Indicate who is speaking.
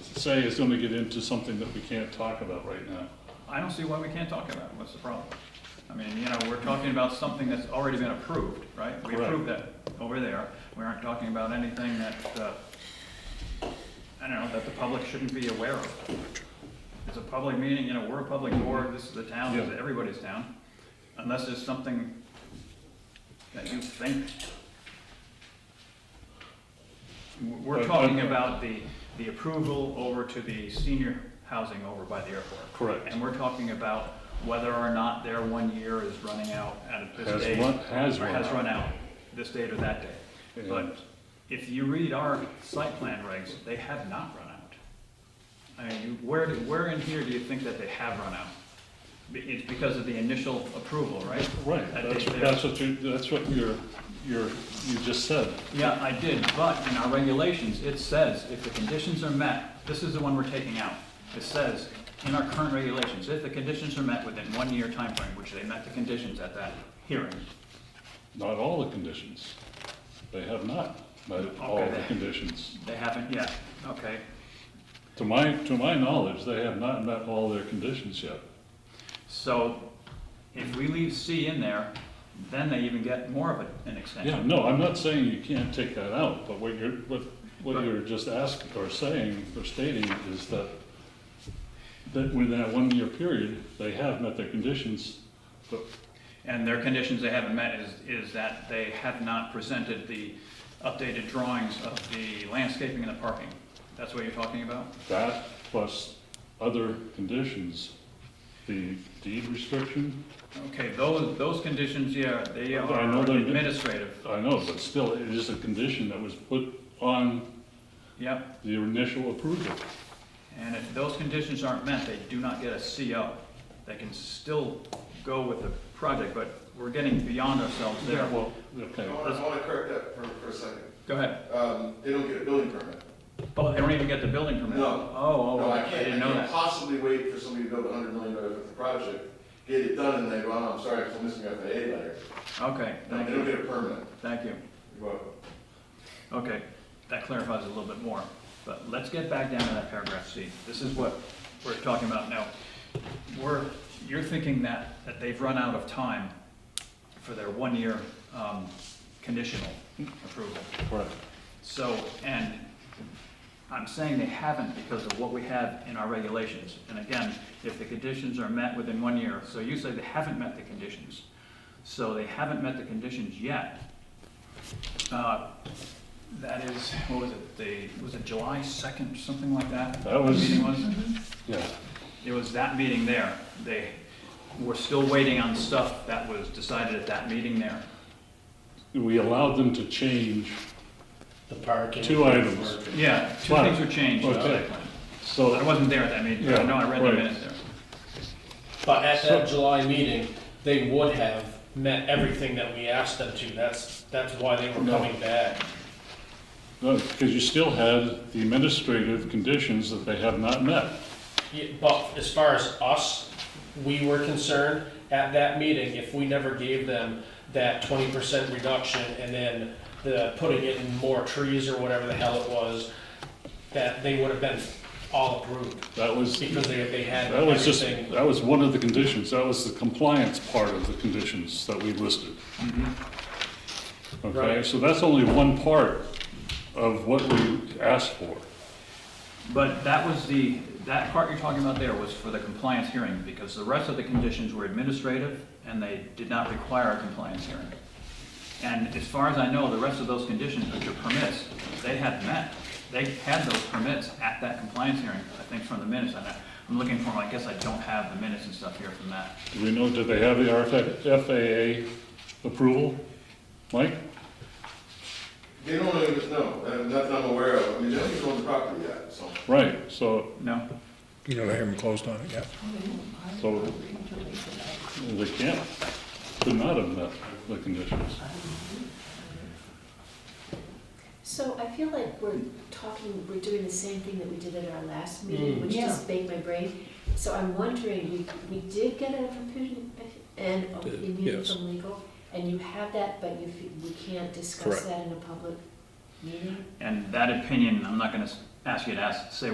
Speaker 1: say is gonna get into something that we can't talk about right now.
Speaker 2: I don't see why we can't talk about it, what's the problem? I mean, you know, we're talking about something that's already been approved, right? We
Speaker 1: Correct.
Speaker 2: approved that over there, we aren't talking about anything that, uh, I don't know, that the public shouldn't be aware of. It's a public meeting, you know, we're a public board, this is the town, this is
Speaker 1: Yeah.
Speaker 2: everybody's town, unless there's something that you think. We're we're
Speaker 1: But-
Speaker 2: talking
Speaker 1: but-
Speaker 2: about the, the approval over to the senior housing over by the airport.
Speaker 1: Correct.
Speaker 2: And we're talking about whether or not their one year is running out at this
Speaker 1: Has
Speaker 2: date.
Speaker 1: run- has
Speaker 2: or
Speaker 1: run out.
Speaker 2: this date or that date. But
Speaker 1: And-
Speaker 2: if you read our site plan regs, they have not run out. I mean, you- where, do- where in here do you think that they have run out? Be- It's because of the initial approval, right?
Speaker 1: Right,
Speaker 2: That
Speaker 1: that's,
Speaker 2: date there.
Speaker 1: that's what you, that's what you're, you're, you just said.
Speaker 2: Yeah, I did, but in our regulations, it says if the conditions are met, this is the one we're taking out. It says in our current regulations, if the conditions are met within one year time frame, which they met the conditions at that hearing.
Speaker 1: Not all the conditions. They have not met all the
Speaker 2: Okay.
Speaker 1: conditions.
Speaker 2: They haven't yet, okay.
Speaker 1: To my, to my knowledge, they have not met all their conditions yet.
Speaker 2: So if we leave C in there, then they even get more of a- an
Speaker 1: Yeah,
Speaker 2: extension.
Speaker 1: no, I'm not saying you can't take that out, but what you're, what, what you're just asking, or saying, or stating is that, that within that one-year period, they have met their conditions, but,
Speaker 2: And their conditions they haven't met is, is that they have not presented the updated drawings of the landscaping and the parking. That's what you're talking about?
Speaker 1: That plus other conditions, the deed restriction,
Speaker 2: Okay, those, those conditions, yeah, they
Speaker 1: I
Speaker 2: are
Speaker 1: know they're-
Speaker 2: administrative,
Speaker 1: I know, but still, it is a condition that was put on
Speaker 2: yep.
Speaker 1: the initial approval.
Speaker 2: And if those conditions aren't met, they do not get a CO. They can still go with the project, but we're getting beyond ourselves there.
Speaker 1: Well, okay,
Speaker 3: I want, I want to correct that for, for a second.
Speaker 2: Go ahead.
Speaker 3: Um, they don't get a building permit.
Speaker 2: Oh, they don't even get the building permit?
Speaker 3: No.
Speaker 2: Oh,
Speaker 3: No,
Speaker 2: oh,
Speaker 3: I
Speaker 2: I
Speaker 3: can't,
Speaker 2: didn't
Speaker 3: I
Speaker 2: know
Speaker 3: can't
Speaker 2: that.
Speaker 3: possibly wait for somebody to build a hundred million dollar worth of project, get it done, and they go, oh, I'm sorry, I'm missing out on the A letter.
Speaker 2: Okay,
Speaker 3: No,
Speaker 2: thank
Speaker 3: They don't
Speaker 2: you,
Speaker 3: get a permit.
Speaker 2: thank you.
Speaker 3: You're welcome.
Speaker 2: Okay, that clarifies a little bit more, but let's get back down to that paragraph C. This is what we're talking about now. We're, you're thinking that, that they've run out of time for their one-year um, conditional approval.
Speaker 1: correct.
Speaker 2: So, and I'm saying they haven't because of what we have in our regulations. And again, if the conditions are met within one year, so you say they haven't met the conditions. So they haven't met the conditions yet. Uh, That is, what was it, the, was it July 2nd, something like that?
Speaker 1: That was-
Speaker 2: The meeting was?
Speaker 1: Yeah,
Speaker 2: It was that meeting there. They were still waiting on stuff that was decided at that meeting there.
Speaker 1: we allowed them to change,
Speaker 4: The parking.
Speaker 1: Two items.
Speaker 2: Yeah, two
Speaker 1: Wow.
Speaker 2: things were changed in the
Speaker 1: Okay.
Speaker 2: site plan. I
Speaker 1: so,
Speaker 2: wasn't there at that meeting, but I know I read
Speaker 1: Yeah,
Speaker 2: the
Speaker 1: right.
Speaker 2: minutes there.
Speaker 4: But at that July meeting, they would have met everything that we asked them to. That's, that's why they were
Speaker 1: No.
Speaker 4: coming back.
Speaker 1: no, because you still had the administrative conditions that they have not met.
Speaker 4: Yeah, But as far as us, we were concerned at that meeting, if we never gave them that twenty percent reduction and then the, putting it in more trees or whatever the hell it was, that they would have been all approved
Speaker 1: That was,
Speaker 4: because they, they had
Speaker 1: that was just,
Speaker 4: everything.
Speaker 1: that was one of the conditions, that was the compliance part of the conditions that we listed. Okay,
Speaker 4: Mm-hmm. Right.
Speaker 1: so that's only one part of what we asked for.
Speaker 2: But that was the, that part you're talking about there was for the compliance hearing, because the rest of the conditions were administrative, and they did not require a compliance hearing. And as far as I know, the rest of those conditions, which are permits, they had met, they had those permits at that compliance hearing, I think from the minutes, and I- I'm looking for them, I guess I don't have the minutes and stuff here from that.
Speaker 1: Do we know, did they have the RFA FAA approval? Mike?
Speaker 3: They don't even, no, uh, nothing I'm aware of. I mean, they don't even own the property yet, so.
Speaker 1: Right, so,
Speaker 2: No?
Speaker 5: You never haven't closed on it yet.
Speaker 1: so they can't, could not have met the conditions.
Speaker 6: So I feel like we're talking, we're doing the same thing that we did at our last meeting,
Speaker 5: Mm.
Speaker 6: which
Speaker 7: Yeah.
Speaker 6: just baked my brain. So I'm wondering, we, we did get an opinion, an opinion
Speaker 5: yes.
Speaker 6: from legal, and you have that, but you, fe- we can't discuss
Speaker 5: Correct.
Speaker 6: that in a public meeting?
Speaker 2: And that opinion, I'm not gonna s- ask you to ask, say